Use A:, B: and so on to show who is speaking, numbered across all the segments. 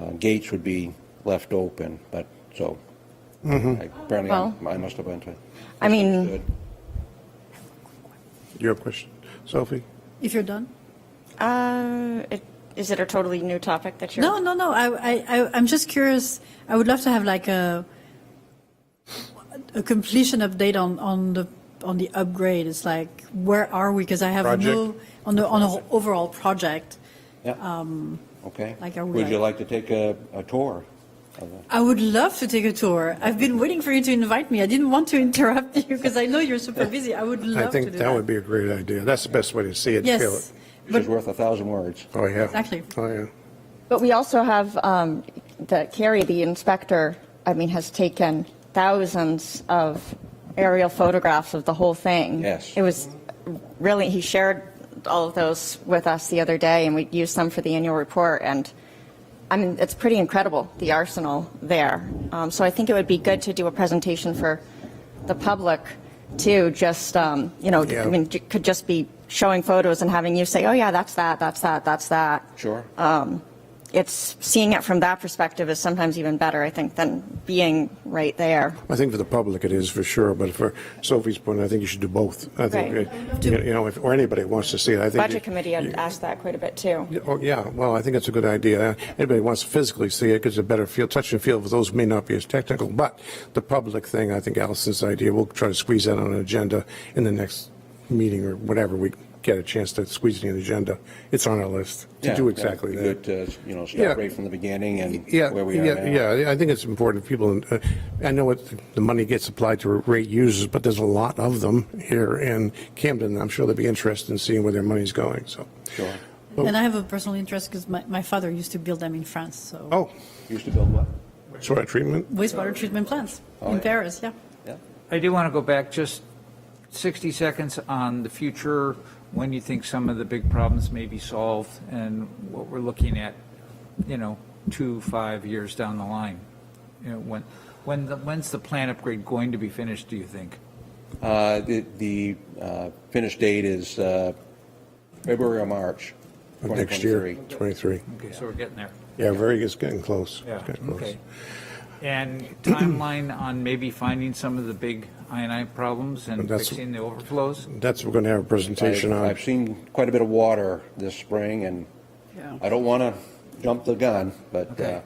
A: uh, gates would be left open, but, so. I- Apparently,
B: Well-
A: I I must have went to.
B: I mean,
A: Good.
C: Your question, Sophie?
D: If you're done?
B: uh, it- is it a totally new topic that you're?
D: No, no, no. I, I, I, I'm just curious. I would love to have like a a completion update on, on the on the upgrade. It's like where are we? Because I have no
C: Project.
D: on the on the overall project.
A: Yeah, okay.
D: like, are we
A: Would you
D: like-
A: like to take a, a tour? of the-
D: I would love to take a tour. I've been waiting for you to invite me. I didn't want to interrupt you because I know you're super busy. I would love
C: I think
D: to do
C: that would be a great idea. That's the best way to see it, feel it.
D: yes,
A: Which is worth a thousand words.
C: Oh, yeah.
D: Exactly.
C: Oh, yeah.
B: But we also have um, the Carrie, the inspector. I mean, has taken thousands of aerial photographs of the whole thing.
A: Yes.
B: It was really. He shared all of those with us the other day, and we used some for the annual report. And I mean, it's pretty incredible the arsenal there. Um, so I think it would be good to do a presentation for the public too. Just um, you know,
C: Yeah.
B: I mean, j- could just be showing photos and having you say, "Oh yeah, that's that, that's that, that's that."
A: Sure.
B: it's seeing it from that perspective is sometimes even better, I think, than being right there.
C: I think for the public it is for sure, but for Sophie's point, I think you should do both. I think,
B: Right.
C: uh, you you know, if, or anybody wants to see it, I think.
B: Budget
C: you-
B: committee had asked that quite a bit too.
C: Yeah, Oh, yeah, well, I think it's a good idea. Anybody wants to physically see it, gives a better feel, touch and feel, for those who may not be as technical, but the public thing, I think Allison's idea, we'll try to squeeze that on an agenda in the next meeting or whatever we get a chance to squeeze it in the agenda. It's on our list to
A: Yeah,
C: do
A: yeah,
C: exactly
A: it'd
C: that.
A: be Good to, you know,
C: Yeah.
A: start right from the beginning and
C: Yeah,
A: where we are now.
C: yeah, yeah. I think it's important. People, uh, I know what the money gets applied to rate users, but there's a lot of them here in Camden. I'm sure they'll be interested in seeing where their money's going. So,
A: Sure.
D: and I have a personal interest because my, my father used to build them in France. So
C: oh,
A: Used to build what?
C: sort of treatment.
D: wastewater treatment plants
C: Oh,
D: in
A: yeah.
D: Paris. Yeah.
A: Yeah.
E: I do want to go back just 60 seconds on the future, when you think some of the big problems may be solved and what we're looking at, you know, two, five years down the line. You know, when, when, the- when's the plant upgrade going to be finished, do you think?
A: Uh, The the, uh, finish date is uh, February or March.
C: Of next year,
A: 2023.
C: 23.
E: Okay, so we're getting there.
C: Yeah, very, it's getting close. It's getting close.
E: Okay. And timeline on maybe finding some of the big INI problems and
C: That's-
E: fixing the overflows?
C: That's, we're going to have a presentation
A: I've-
C: on.
A: I've seen quite a bit of water this spring, and
D: Yeah.
A: I don't want to jump the gun, but
E: Okay.
A: uh,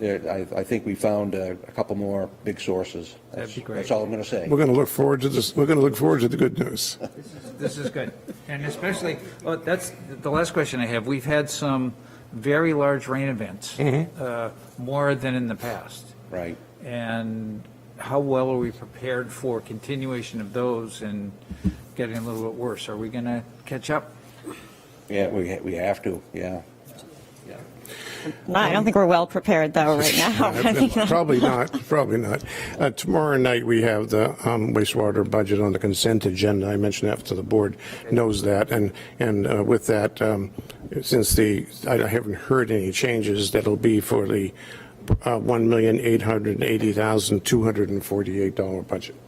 A: there- I I think we found uh, a couple more big sources.
E: That'd be
A: That's-
E: great.
A: That's all I'm going to say.
C: We're going to look forward to this, we're going to look forward to the good news.
E: This is good. And especially, oh, that's the last question I have. We've had some very large rain events, uh, more than in the past.
A: Right.
E: And how well are we prepared for continuation of those and getting a little bit worse? Are we going to catch up?
A: Yeah, we ha- we have to, yeah.
B: No, I don't think we're well prepared though right now. I think that-
C: Probably not, probably not. Uh, Tomorrow night, we have the um, wastewater budget on the consent agenda. I mentioned that to the board, knows that. And, and uh, with that, um, since the, I haven't heard any changes, that'll be for the uh, $1,880,248 budget.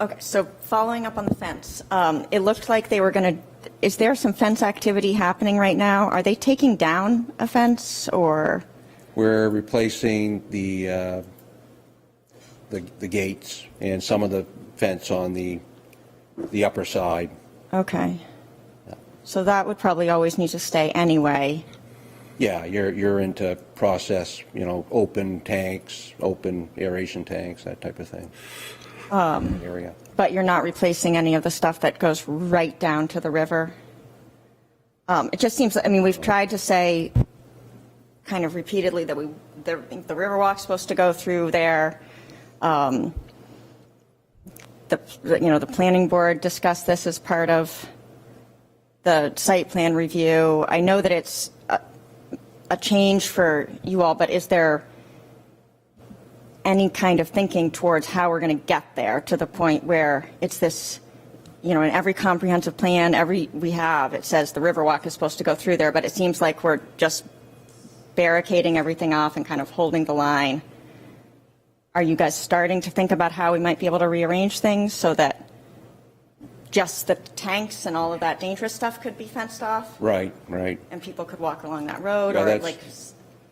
B: Okay, so following up on the fence, um, it looked like they were going to, is there some fence activity happening right now? Are they taking down a fence or,
A: We're replacing the, uh, the the gates and some of the fence on the, the upper side.
B: okay. So that would probably always need to stay anyway.
A: Yeah, you're, you're into process, you know, open tanks, open aeration tanks, that type of thing. Area.
B: But you're not replacing any of the stuff that goes right down to the river? Um, It just seems, I mean, we've tried to say kind of repeatedly that we, the the Riverwalk's supposed to go through there. Um, The, you know, the planning board discussed this as part of the site plan review. I know that it's uh, a- a change for you all, but is there any kind of thinking towards how we're going to get there to the point where it's this, you know, in every comprehensive plan, every we have, it says the Riverwalk is supposed to go through there, but it seems like we're just barricading everything off and kind of holding the line. Are you guys starting to think about how we might be able to rearrange things so that just the tanks and all of that dangerous stuff could be fenced off
A: Right, right.
B: and people could walk along that road
A: Yeah,
B: or
A: that's-
B: like